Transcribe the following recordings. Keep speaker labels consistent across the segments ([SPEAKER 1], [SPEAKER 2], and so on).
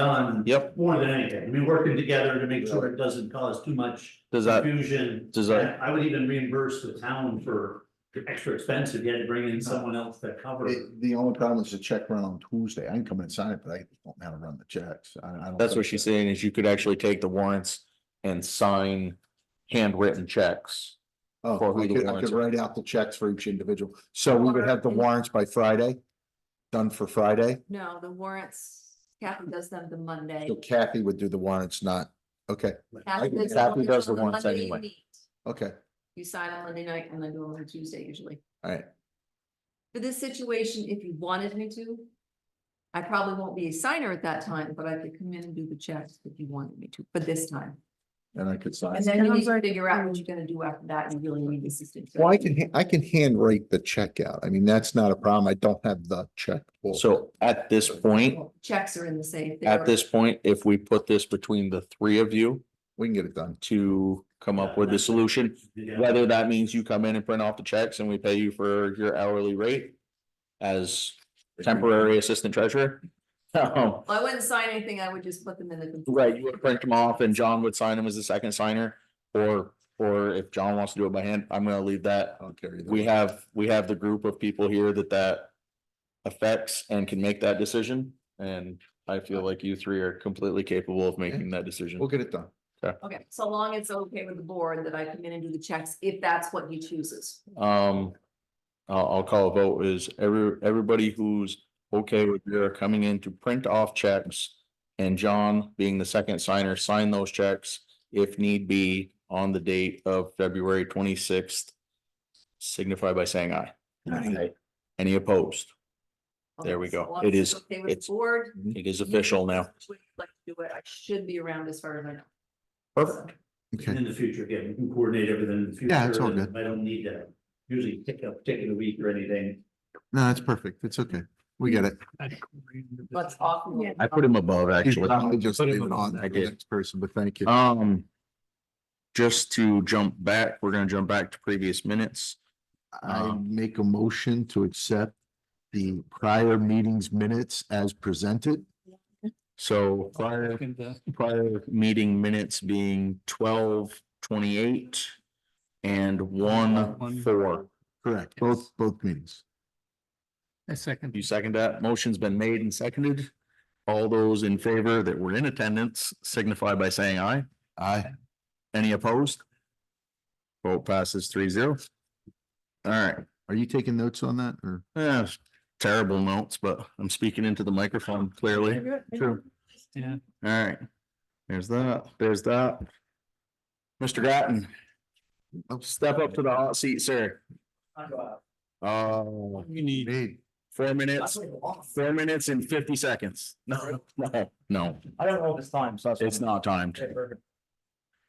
[SPEAKER 1] done.
[SPEAKER 2] Yep.
[SPEAKER 1] More than anything, I mean, working together to make sure it doesn't cause too much
[SPEAKER 2] Does that,
[SPEAKER 1] confusion.
[SPEAKER 2] does that,
[SPEAKER 1] I would even reimburse the town for the extra expense if you had to bring in someone else to cover. it.
[SPEAKER 3] It- The only problem is the check run on Tuesday. I can come in and sign it, but I don't know how to run the checks. I, I don't.
[SPEAKER 2] that's what she's saying is you could actually take the warrants and sign handwritten checks.
[SPEAKER 3] Oh,
[SPEAKER 2] for who
[SPEAKER 3] I
[SPEAKER 2] the
[SPEAKER 3] could, I
[SPEAKER 2] warrants
[SPEAKER 3] could
[SPEAKER 2] are.
[SPEAKER 3] write out the checks for each individual. So we would have the warrants by Friday. Done for Friday.
[SPEAKER 4] No, the warrants, Kathy does them the Monday.
[SPEAKER 3] So Kathy would do the warrants, not, okay, I-
[SPEAKER 4] does
[SPEAKER 2] Kathy does the
[SPEAKER 4] on
[SPEAKER 2] warrants
[SPEAKER 4] Monday you
[SPEAKER 2] anyway.
[SPEAKER 4] meet.
[SPEAKER 3] okay,
[SPEAKER 4] You sign on Monday night and then do them on Tuesday usually.
[SPEAKER 3] all right.
[SPEAKER 4] For this situation, if you wanted me to, I probably won't be a signer at that time, but I could come in and do the checks if you wanted me to, for this time.
[SPEAKER 3] And I could sign.
[SPEAKER 4] And then you need to figure out what you're gonna do after that. You really need assistance.
[SPEAKER 3] Well, I can, ha- I can handwrite the check out. I mean, that's not a problem. I don't have the check. book.
[SPEAKER 2] So at this point,
[SPEAKER 4] Checks are in the safe. They
[SPEAKER 2] at
[SPEAKER 4] are-
[SPEAKER 2] this point, if we put this between the three of you
[SPEAKER 3] We can get it done.
[SPEAKER 2] to come up with a solution,
[SPEAKER 1] Yeah.
[SPEAKER 2] whether that means you come in and print off the checks and we pay you for your hourly rate as temporary assistant treasurer. Um,
[SPEAKER 4] I wouldn't sign anything. I would just put them in the.
[SPEAKER 2] Right, you would print them off and John would sign them as the second signer, or, or if John wants to do it by hand, I'm gonna leave that.
[SPEAKER 3] I don't care either.
[SPEAKER 2] We have, we have the group of people here that that affects and can make that decision, and I feel like you three are completely capable of making that
[SPEAKER 3] We'll
[SPEAKER 2] decision.
[SPEAKER 3] get it done.
[SPEAKER 4] Okay, so long it's okay with the board that I come in and do the checks, if that's what he chooses.
[SPEAKER 2] Um, I'll, I'll call a vote is every, everybody who's okay with your coming in to print off checks and John being the second signer, sign those checks if need be on the date of February twenty-sixth. Signify by saying aye.
[SPEAKER 3] Aye.
[SPEAKER 2] Any opposed?
[SPEAKER 4] Okay,
[SPEAKER 2] There we
[SPEAKER 4] so
[SPEAKER 2] go.
[SPEAKER 4] long
[SPEAKER 2] It
[SPEAKER 4] as
[SPEAKER 2] is-
[SPEAKER 4] it's Okay with
[SPEAKER 2] it's
[SPEAKER 4] the board.
[SPEAKER 2] It is official now.
[SPEAKER 4] Would you Like to do it, I should be around as far as I know.
[SPEAKER 2] Perfect.
[SPEAKER 3] Okay.
[SPEAKER 1] In the future, again, we can coordinate everything in the future.
[SPEAKER 3] Yeah, it's all
[SPEAKER 1] and
[SPEAKER 3] good.
[SPEAKER 1] I don't need to usually pick up, take it a week or anything.
[SPEAKER 3] No, that's perfect. It's okay. We get it.
[SPEAKER 4] Let's awful.
[SPEAKER 2] I put him above, actually.
[SPEAKER 3] I just
[SPEAKER 1] Put him
[SPEAKER 3] leave it
[SPEAKER 1] on
[SPEAKER 3] on
[SPEAKER 2] that
[SPEAKER 3] to the
[SPEAKER 2] list.
[SPEAKER 3] next person, but thank you.
[SPEAKER 2] Um. Just to jump back, we're gonna jump back to previous minutes.
[SPEAKER 3] I
[SPEAKER 2] um,
[SPEAKER 3] make a motion to accept the prior meetings minutes as presented.
[SPEAKER 2] So prior, prior meeting minutes being twelve twenty-eight and one four.
[SPEAKER 3] Correct, both, both meetings.
[SPEAKER 5] I second.
[SPEAKER 2] You second that? Motion's been made and seconded. All those in favor that were in attendance signify by saying aye.
[SPEAKER 3] Aye.
[SPEAKER 2] Any opposed? Vote passes three zero. All right,
[SPEAKER 3] Are you taking notes on that or?
[SPEAKER 2] Yeah, it's terrible notes, but I'm speaking into the microphone clearly. True.
[SPEAKER 5] Yeah.
[SPEAKER 2] All right. There's that, there's that. Mr. Grattan. Step up to the hot seat, sir. Uh,
[SPEAKER 5] You need.
[SPEAKER 3] Made.
[SPEAKER 2] four minutes, four minutes and fifty seconds. No, no, no,
[SPEAKER 6] I don't know if it's time, so. that's-
[SPEAKER 2] it's not timed.
[SPEAKER 6] Okay, perfect.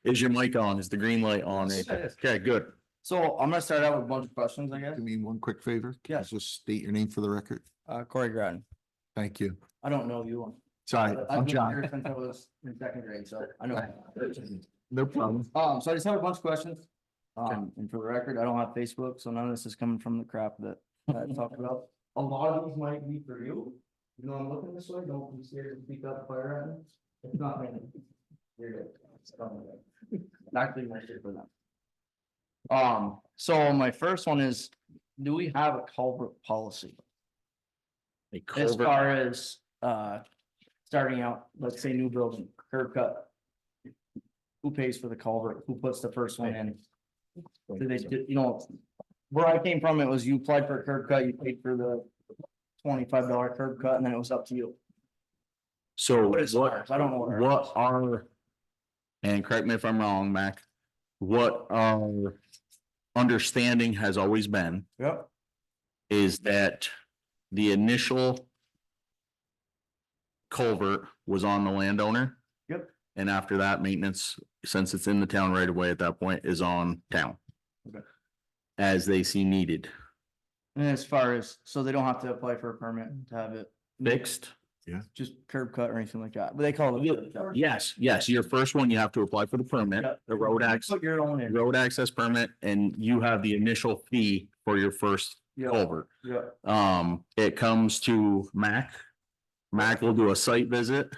[SPEAKER 2] Is your mic on? Is the green light on?
[SPEAKER 6] Yes, yes.
[SPEAKER 2] Okay, good.
[SPEAKER 6] So I'm gonna start out with a bunch of questions, I guess.
[SPEAKER 3] Do me one quick favor?
[SPEAKER 6] Yeah.
[SPEAKER 3] Just state your name for the record.
[SPEAKER 6] Uh, Corey Groton,
[SPEAKER 3] Thank you.
[SPEAKER 6] I don't know you.
[SPEAKER 3] Sorry,
[SPEAKER 6] I've
[SPEAKER 3] I'm
[SPEAKER 6] been
[SPEAKER 3] John.
[SPEAKER 6] here Since I was in second grade, so I know.
[SPEAKER 3] No problem.
[SPEAKER 6] Um, so I just have a bunch of questions. Um, and for the record, I don't have Facebook, so none of this is coming from the crap that that I talked about. A lot of these might be for you. You know, I'm looking this way, don't be scared to speak up, fire at me. It's not me. You're good. It's not me. Not doing my shit for them. Um, so my first one is, do we have a culvert policy?
[SPEAKER 2] A
[SPEAKER 6] As
[SPEAKER 2] culvert-
[SPEAKER 6] far as, uh, starting out, let's say new building, curb cut. Who pays for the culvert? Who puts the first one in? Do they, do- you know, where I came from, it was you applied for a curb cut, you paid for the twenty-five dollar curb cut, and then it was up to you.
[SPEAKER 2] So
[SPEAKER 6] What is
[SPEAKER 2] what,
[SPEAKER 6] ours? I don't know what ours
[SPEAKER 2] what
[SPEAKER 6] is.
[SPEAKER 2] are, and correct me if I'm wrong, Mac, what our understanding has always been
[SPEAKER 6] Yep.
[SPEAKER 2] is that the initial culvert was on the landowner.
[SPEAKER 6] Yep.
[SPEAKER 2] And after that, maintenance, since it's in the town right away at that point, is on town.
[SPEAKER 6] Okay.
[SPEAKER 2] As they see needed,
[SPEAKER 6] And as far as, so they don't have to apply for a permit to have it,
[SPEAKER 2] fixed.
[SPEAKER 6] just curb cut or anything like that, but they call it. a curb cut.
[SPEAKER 2] Yes, yes, your first one, you have to apply for the permit,
[SPEAKER 6] Yep.
[SPEAKER 2] the road access.
[SPEAKER 6] Put your own in.
[SPEAKER 2] road access permit and you have the initial fee for your first
[SPEAKER 6] Yeah,
[SPEAKER 2] culvert.
[SPEAKER 6] yeah.
[SPEAKER 2] Um, it comes to Mac. Mac will do a site visit